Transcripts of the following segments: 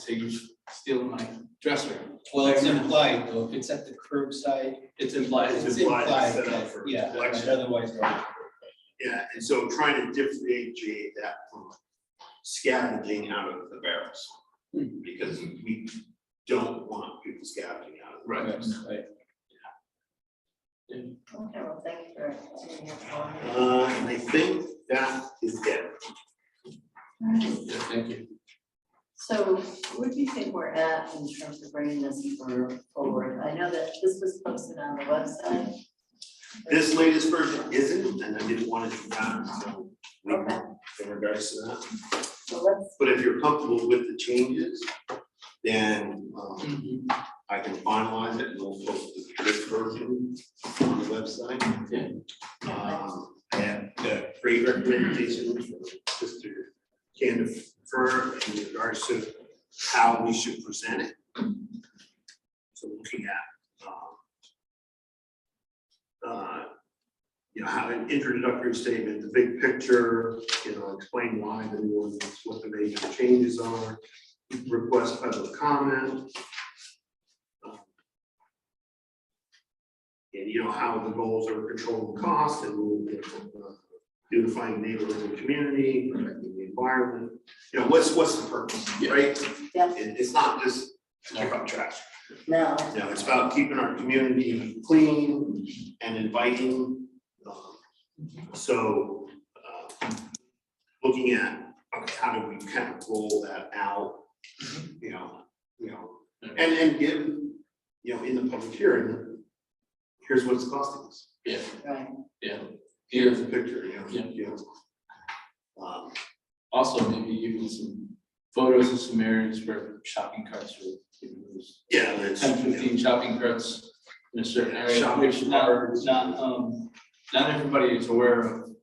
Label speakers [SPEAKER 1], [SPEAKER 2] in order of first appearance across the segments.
[SPEAKER 1] say you steal my dresser.
[SPEAKER 2] Well, it's implied though, if it's at the curbside,
[SPEAKER 1] It's implied.
[SPEAKER 3] It's
[SPEAKER 2] it's
[SPEAKER 3] implied,
[SPEAKER 2] implied,
[SPEAKER 3] set up
[SPEAKER 2] that-
[SPEAKER 3] for
[SPEAKER 2] yeah,
[SPEAKER 3] collection.
[SPEAKER 2] otherwise. no.
[SPEAKER 3] Yeah, and so trying to differentiate that from scavenging out of the barrels. Because we don't want people scavenging out of the barrels.
[SPEAKER 2] Right.
[SPEAKER 4] Okay, well, thank you for doing your part.
[SPEAKER 3] Uh, and I think that is it.
[SPEAKER 1] Yeah, thank you.
[SPEAKER 4] So where do you think we're at in terms of bringing this for- forward? I know that this was posted on the website.
[SPEAKER 3] This latest version isn't, and I didn't want it to be done, so we-
[SPEAKER 4] Okay.
[SPEAKER 3] in regards to that.
[SPEAKER 4] So let's,
[SPEAKER 3] But if you're comfortable with the changes, then um,
[SPEAKER 2] Mm-hmm.
[SPEAKER 3] I can finalize it and we'll post this version on the website.
[SPEAKER 1] Yeah.
[SPEAKER 3] Um, and the great recommendation from Mr. Candifer in regards to how we should present it. So looking at, um, uh, you know, have an introductory statement, the big picture, you know, explain why the new ordinance, what the major changes are, request public comment. And you know, how the goals are controlling cost and you know, uh, unifying neighborhoods and community, protecting the environment. You know, what's, what's the purpose,
[SPEAKER 1] Yeah.
[SPEAKER 3] right?
[SPEAKER 4] Yeah.
[SPEAKER 3] It- it's not just to pick up trash.
[SPEAKER 4] now,
[SPEAKER 3] You know, it's about keeping our community clean and inviting. um, So, uh, looking at, okay, how do we kind of roll that out? You know, you know, and, and give, you know, in the public hearing, here's what it's costing us.
[SPEAKER 1] Yeah,
[SPEAKER 4] right,
[SPEAKER 1] yeah.
[SPEAKER 3] Here's
[SPEAKER 1] Here,
[SPEAKER 3] a picture, you know,
[SPEAKER 1] Yeah.
[SPEAKER 3] you know. Um,
[SPEAKER 1] also maybe even some photos of some areas where shopping carts were, you know, there's
[SPEAKER 3] Yeah, it's.
[SPEAKER 1] ten, fifteen shopping carts in a certain area,
[SPEAKER 3] Shopping
[SPEAKER 1] which not,
[SPEAKER 3] carts.
[SPEAKER 1] not, um, not everybody is aware of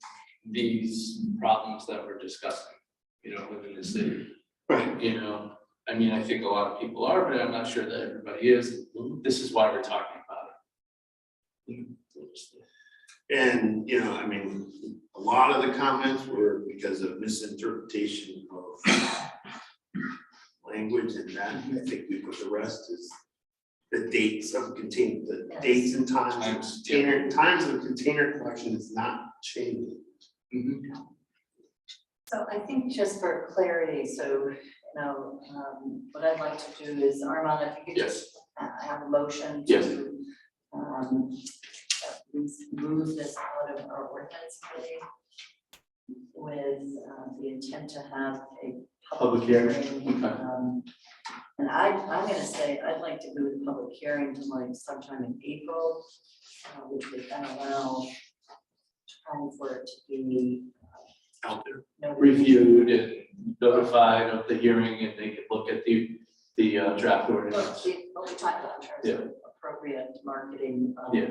[SPEAKER 1] these problems that we're discussing, you know, within the city.
[SPEAKER 3] Right,
[SPEAKER 1] you know, I mean, I think a lot of people are, but I'm not sure that everybody is. This is why we're talking about it.
[SPEAKER 3] and, you know, I mean, a lot of the comments were because of misinterpretation of language and that, I think we put the rest is the dates of contain, the dates and times
[SPEAKER 1] Times,
[SPEAKER 3] of
[SPEAKER 1] yeah.
[SPEAKER 3] container, times of container collection is not changing. Mm-hmm.
[SPEAKER 1] Mhm.
[SPEAKER 4] so I think just for clarity, so, you know, um, what I'd like to do is, Armand, if you could just
[SPEAKER 1] Yes,
[SPEAKER 4] uh, have a motion
[SPEAKER 1] Yes.
[SPEAKER 4] to um, at least move this out of our ordinance committee with uh, the intent to have a public
[SPEAKER 1] Public hearing,
[SPEAKER 4] hearing.
[SPEAKER 1] okay.
[SPEAKER 4] um, And I, I'm gonna say, I'd like to move the public hearing to like sometime in April, uh, which would then allow time for it to be uh,
[SPEAKER 3] Out there.
[SPEAKER 4] noted.
[SPEAKER 1] reviewed and notified of the hearing and they could look at the, the uh, draft
[SPEAKER 4] Well,
[SPEAKER 1] ordinance.
[SPEAKER 4] we, well, we talked about in terms of appropriate marketing of
[SPEAKER 1] Yeah.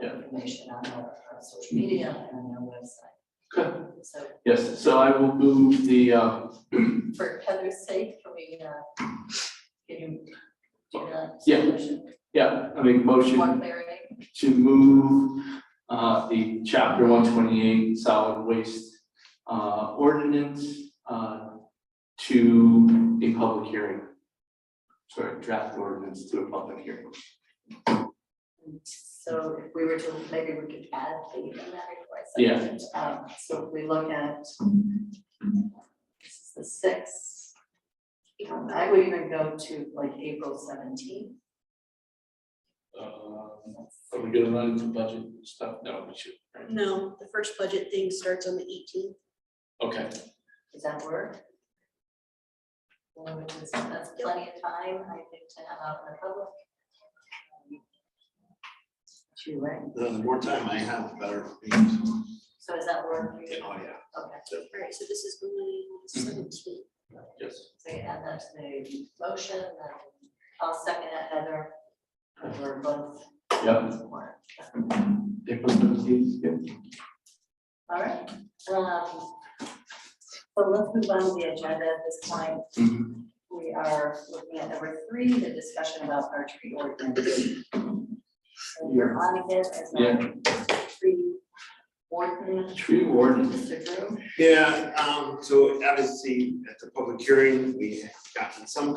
[SPEAKER 1] Yeah.
[SPEAKER 4] information on our, our social media and on our website.
[SPEAKER 1] Okay.
[SPEAKER 4] So
[SPEAKER 1] Yes, so I will move the, uh,
[SPEAKER 4] for Heather's sake, can we, uh, can you do that?
[SPEAKER 1] Yeah.
[SPEAKER 4] Motion,
[SPEAKER 1] yeah, I make a
[SPEAKER 4] One
[SPEAKER 1] motion
[SPEAKER 4] clarity,
[SPEAKER 1] to move uh, the chapter one twenty-eight solid waste uh, ordinance uh, to a public hearing. Sorry, draft ordinance to a public hearing.
[SPEAKER 4] so if we were to, maybe we could add the thematic
[SPEAKER 1] Yeah.
[SPEAKER 4] license. Um, so if we look at, this is the sixth. Um, I would even go to like April seventeenth.
[SPEAKER 1] Um, Are we gonna run into budget stuff? No, we should. right?
[SPEAKER 5] No, the first budget thing starts on the eighteenth.
[SPEAKER 1] Okay,
[SPEAKER 4] Does that work? Well, which is- That's plenty of time, I think, to have out in the public. Two, right?
[SPEAKER 3] The more time I have, the better. for me.
[SPEAKER 4] So does that work? for you?
[SPEAKER 3] Oh, yeah.
[SPEAKER 4] Okay,
[SPEAKER 5] Alright, so this is going on seventeen.
[SPEAKER 1] yes.
[SPEAKER 4] so you add that to the motion, and I'll second it, Heather. and We're both.
[SPEAKER 1] Yep.
[SPEAKER 4] All
[SPEAKER 1] April seventeenth, yeah.
[SPEAKER 4] right, um, so let's move on to the agenda at this point.
[SPEAKER 1] Mhm.
[SPEAKER 4] We are looking at number three, the discussion about our tree ordinance. So You're on again as my tree ordinance,
[SPEAKER 1] Tree warden.
[SPEAKER 4] Mr. Drew.
[SPEAKER 3] Yeah, um, so obviously at the public hearing, we have gotten some